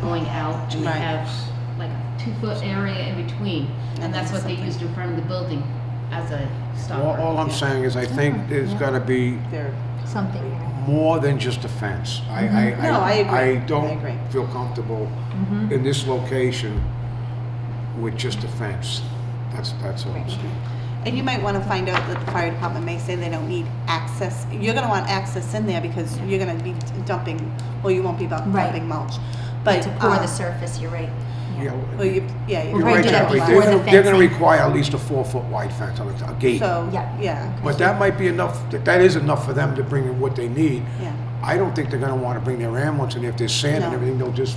going out and they Right. have like a two-foot area in between. And that's what they used in front of the building as a All, all stopper. I'm saying is I think there's gotta be They're, something. more than just a fence. I, I, I. No, I agree. I I agree. don't feel comfortable in this location with just a fence. That's, that's all I'm saying. and you might want to find out that the fire department may say they don't need access. You're going to want access in there because you're going to be dumping, well, you won't be dump- Right. dumping mulch. But, To pour the um, surface, you're right. Yeah, w- well, you, yeah. We'll You're probably right, do that Jackie. before They're, the gonna- they're gonna fencing. require at least a four-foot wide fence, on a a gate. So, Yeah. yeah, But that might be enough, that, that is enough for them to bring in what they need. yeah. I don't think they're gonna wanna bring their ambulance, and if there's sand and No. everything, they'll just,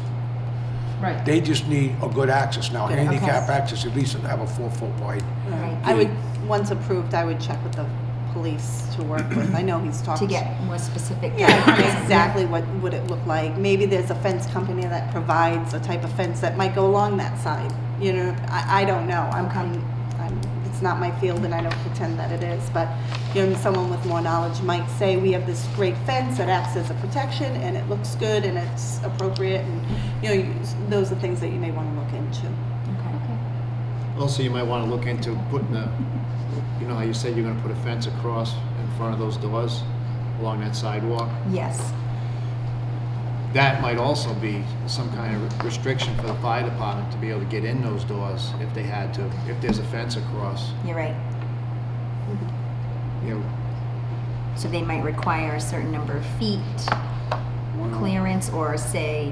Right. they just need a good access now, Good, handicap okay. access, at least have a four-foot wide. Right. I would, once approved, I would check with the police to work with. I know he's talked. To get more specific. Yeah, exactly what would it look like? Maybe there's a fence company that provides a type of fence that might go along that side. You know, I, I don't know. I'm, I'm, I'm, it's not my field and I don't pretend that it is, but, you know, someone with more knowledge might say, we have this great fence that acts as a protection and it looks good and it's appropriate and, you know, you- those are things that you may want to look into. Okay. Also, you might want to look into putting a, you know how you said you're going to put a fence across in front of those doors along that sidewalk? Yes, That might also be some kind of restriction for the fire department to be able to get in those doors if they had to, if there's a fence across, you're right. you know, So they might require a certain number of feet One on- clearance or say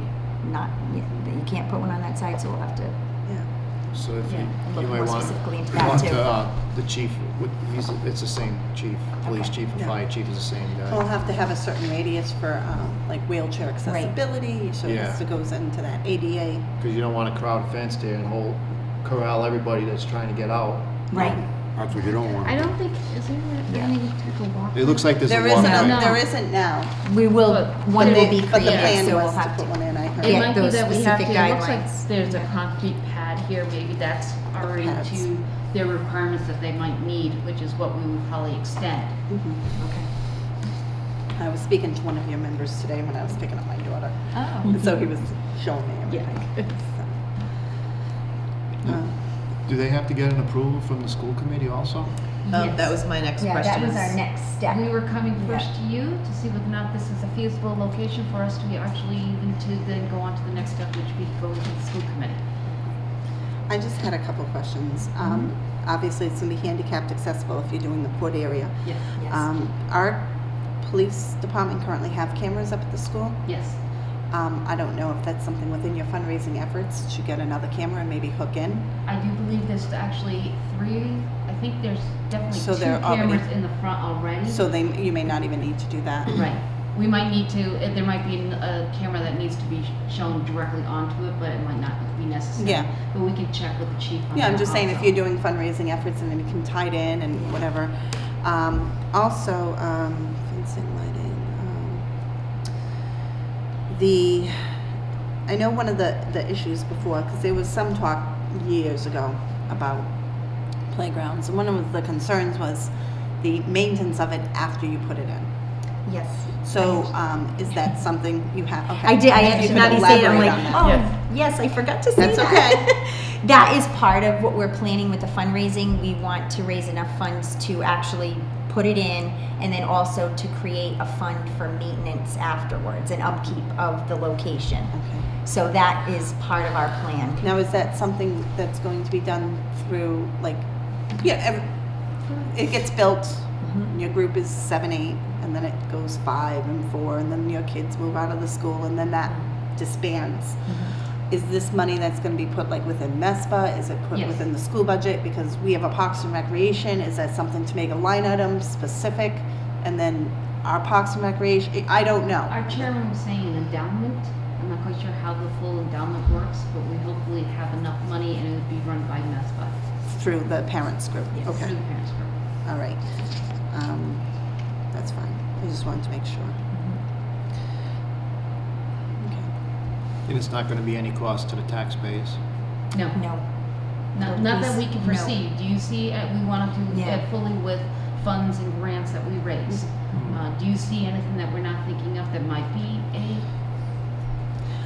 not, yeah, that you can't put one on that side, so we'll have to. Yeah. so if Yeah, you, look you more might want. specifically into you that want too. to, uh, The chief, would- he's, it's the same chief, police Okay. chief and Yeah. fire chief is the same guy. We'll have to have a certain radius for, um, like wheelchair accessibility, so Yeah. this goes into that ADA. Because you don't want a crowd fence there and whole corral everybody that's trying to get out. Right, That's what you don't want. I don't think, is there any type of walk? It looks like there's a There walkway. isn't, No. a- there isn't now. we will, But- one But will they- be But the created, plan so we'll was to have put one to. in, I heard. It Yeah, might be those that we have to, specific it looks guidelines. like there's a concrete pad here, maybe that's already Pads. to their requirements that they might need, which is what we would probably extend. Mhm. Okay. I was speaking to one of your members today when I was picking up my daughter, Oh. and so he was showing me everything. So, um, Do they have to get an approval from the school committee also? Um, Yes. that was my next Yeah, question. that was our is- next step. Oh, We were coming Yeah. first to you to see whether or not this is a feasible location for us to be actually even to then go on to the next step, which we go to the school committee. I just had a couple of questions. Mm-hmm. Um, Obviously, it's going to be handicapped accessible if you're doing the port area. Yes, Yes, Um, Our police department currently have cameras up at the school. yes. Um, I don't know if that's something within your fundraising efforts to get another camera and maybe hook in. I do believe there's actually three, I think there's definitely So two they're already- cameras in the front already. So they, you may not even need to do that. Right. We might need to, uh, there might be an- a camera that needs to be sh- shown directly onto it, but it might not be necessary. Yeah. But we can check with the chief on that Yeah, I'm just saying if also. you're doing fundraising efforts and then you can tie it in and whatever. Um, also, um, fencing lighting. Um, the I know one of the the issues before because there was some talk years ago about playgrounds. and One of the concerns was the maintenance of it after you put it in. yes. So um, is that something you have? Okay. I did. I If you actually could now that you say it, I'm elaborate like, on that. oh, Yes. yes, I forgot to say That's that. that is part of what we're planning with the fundraising. We want to raise enough funds to actually put it in, and then also to create a fund for maintenance afterwards and upkeep of the location. Okay. So that is part of our plan. Now, is that something that's going to be done through, like, yeah, ev- it gets built, Mhm. your group is seven, eight, and then it goes five and four, and then your kids move out of the school, and then that disbands. Is this money that's gonna be put like within E MESPA? Is it put Yes. within the school budget? Because we have a Parks and Recreation, is that something to make a line item specific? And then our Parks and Recreation, I don't know. Our chairman was saying an endowment. I'm not quite sure how the full endowment works, but we hopefully have enough money and it would be run by E MESPA. Through the parents group, Yes. okay. Through the parents group. All right. Um, That's fine. I just wanted to make sure. Okay. And it's not going to be any cost to the taxpayers. No, No. not, No, not that please, we can no. foresee. Do you see, uh, we want to do Yeah. it fully with Mm-hmm. funds and grants that we raise. Uh, do you see anything that we're not thinking of that might be a